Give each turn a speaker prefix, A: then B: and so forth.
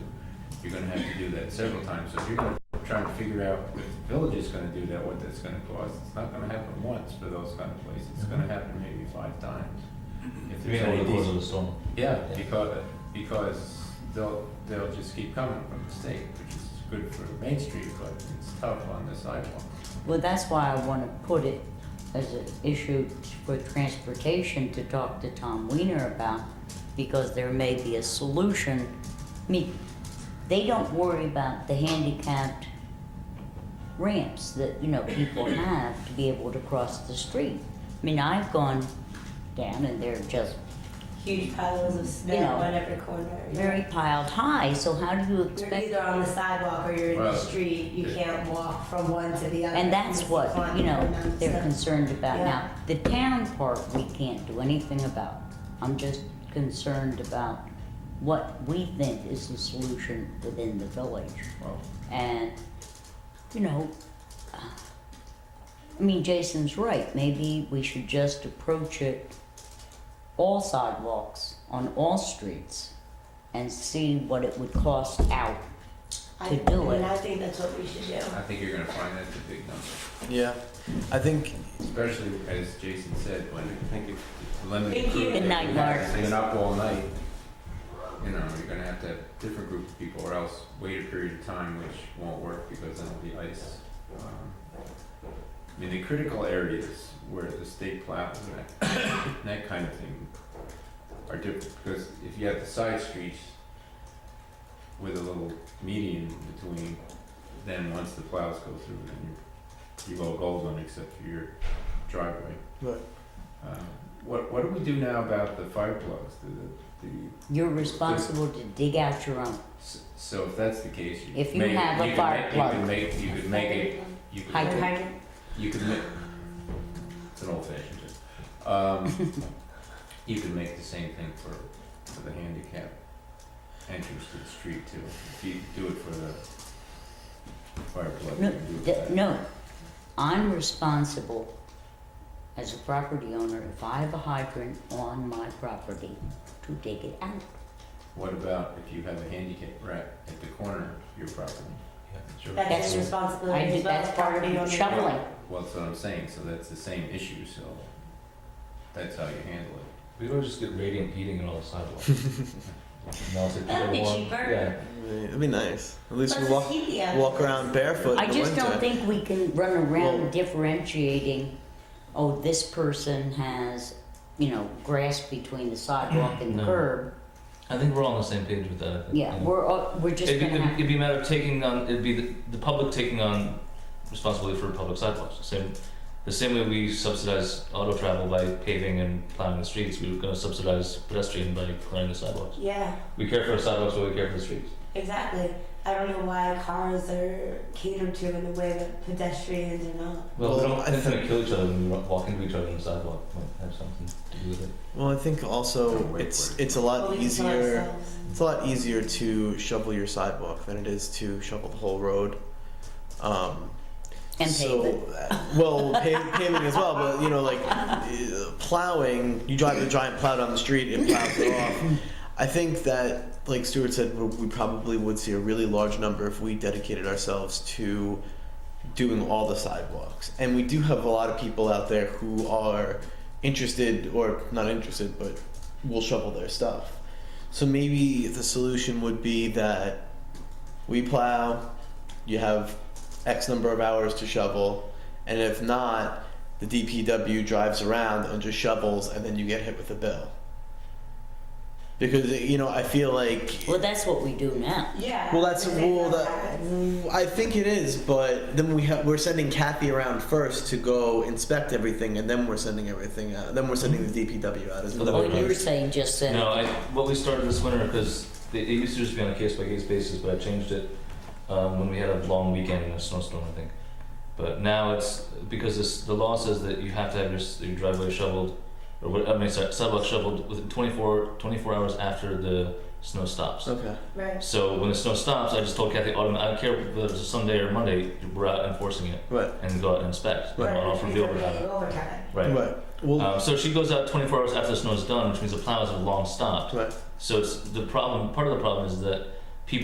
A: you're gonna have to do that several times. So if you're gonna try and figure out if the village is gonna do that, what that's gonna cost, it's not gonna happen once for those kind of places. It's gonna happen maybe five times. If
B: Three
A: there's any
B: hundred
A: decent-
B: goes of the storm.
A: Yeah,
B: Yeah.
A: because, because they'll, they'll just keep coming from the state, which is good for Main Street, but it's tough on the sidewalk.
C: Well, that's why I wanna put it as an issue for transportation to talk to Tom Weiner about, because there may be a solution. I mean, they don't worry about the handicapped ramps that, you know, people have to be able to cross the street. I mean, I've gone down and they're just
D: Huge piles of snow
C: You know,
D: on every corner. yeah.
C: very piled high, so how do you
D: You're
C: expect?
D: either on the sidewalk or you're in
A: Well,
D: the street. You
A: yeah.
D: can't walk from one to the other.
C: And that's
D: It's
C: what,
D: fun
C: you
D: for
C: know,
D: them,
C: they're
D: so-
C: concerned about
D: Yeah.
C: now. The town part, we can't do anything about. I'm just concerned about what we think is the solution within the village.
A: Well,
C: And, you know, uh, I mean, Jason's right, maybe we should just approach it all sidewalks on all streets and see what it would cost out.
D: I-
C: to do
D: I mean,
C: it.
D: I think that's what we should do.
A: I think you're gonna find that's a big number,
E: Yeah, I think
A: especially as Jason said, when I think it's limited
D: Thank you.
A: crew.
D: Good
C: night, Mark.
A: Staying up all night, you know, you're gonna have to have different group of people or else wait a period of time, which won't work because then it'll be ice. Um, I mean, the critical areas where the state plows and that and that kind of thing are different, because if you have the side streets with a little median between, then once the plows go through, then you're below Golden except for your driveway.
E: Right.
A: Um, What, what do we do now about the fire plugs? Do the, the,
C: You're responsible to dig out your own.
A: s- so if that's the case, you
C: If you
A: may-
C: have a
A: could
C: fire
A: make-
C: plug.
A: You could make, you could make it, you could.
C: Hydrant.
A: You could make, it's an old fashioned joke. Um, you could make the same thing for, for the handicap entrance to the street too. If you do it for the fire plug, you
C: No,
A: can do it for
C: th-
A: that.
C: no, I'm responsible as a property owner if I have a hydrant on my property to dig it out.
A: What about if you have a handicap ramp at the corner of your property?
D: That's
C: That's-
D: his
C: I
D: responsibility
C: do,
D: as well.
C: that's part
D: property
C: of
D: owner.
C: shoveling.
A: Well, that's what I'm saying, so that's the same issue, so that's how you handle it.
B: We don't just get radiant heating on all the sidewalks. Melt it,
D: That'd
B: get
D: be
B: warm.
D: cheaper.
B: Yeah.
E: it'd be nice. At least we
D: Let's
E: walk
D: keep the
E: walk
D: evidence.
E: around barefoot
C: I
E: in the
C: just
E: winter.
C: don't think we can run
E: Well-
C: around differentiating, oh, this person has, you know, grass between the sidewalk and the
B: No.
C: curb.
B: I think we're all on the same page with that. I think,
C: Yeah,
B: you know.
C: we're, all- we're just
B: It'd be,
C: gonna
B: it'd
C: have,
B: it'd be a matter of taking on, it'd be the, the public taking on responsibility for public sidewalks. The same, the same way we subsidize auto travel by paving and plowing the streets, we we're gonna subsidize pedestrian by clearing the sidewalks.
D: Yeah,
B: We care for our sidewalks, but we care for the streets.
D: exactly. I don't know why cars are catered to in the way that pedestrians are not.
B: Well,
E: Well,
B: we don't
E: I
B: intend to
E: think-
B: kill each other when we ro- walk into each other on the sidewalk. Might have something to do with it.
E: Well, I think
A: Don't
E: also
A: wait
E: it's
A: for it.
E: it's a lot
D: Well, we can tell
E: easier.
D: ourselves.
E: It's a lot easier to shovel your sidewalk than it is to shovel the whole road. Um,
C: and
E: so, uh,
C: pavement.
E: well, pa- paving as well, but you know, like uh, plowing. You drive a giant plow down the street, it plows it off. I think that, like Stuart said, we we probably would see a really large number if we dedicated ourselves to doing all the sidewalks. And we do have a lot of people out there who are interested, or not interested, but will shovel their stuff. So maybe the solution would be that we plow, you have X number of hours to shovel, and if not, the DPW drives around and just shovels, and then you get hit with a bill. Because you know, I feel like
C: Well, that's what we do now.
D: Yeah.
E: well, that's
D: we think
E: well,
D: that's
E: that
D: happening.
E: I think it is, but then we have we're sending Kathy around first to go inspect everything, and then we're sending everything out. Then we're sending the DPW out. Isn't that
C: Oh,
E: what
C: you
E: it
C: were
E: is?
C: saying just then.
B: No, I, what we started this winter because it used to just be on a case by case basis, but I changed it um, when we had a long weekend and a snowstorm, I think. But now it's because this, the law says that you have to have your, s- your driveway shoveled, or what, I mean, sorry, sidewalk shoveled within 24, 24 hours after the snow stops.
E: Okay.
D: Right.
B: So when the snow stops, I just told Kathy, "Autumn, I don't care whether it's a Sunday or Monday, we're out enforcing it
E: Right.
B: and go out and inspect.
E: Right.
B: I'll offer
D: Because
B: the
D: we're paying
B: overtime.
D: overtime.
B: Right.
E: Right. Well.
B: Um, so she goes out 24 hours after the snow is done, which means the plow is a long stop.
E: right.
B: So it's the problem. Part of the problem is that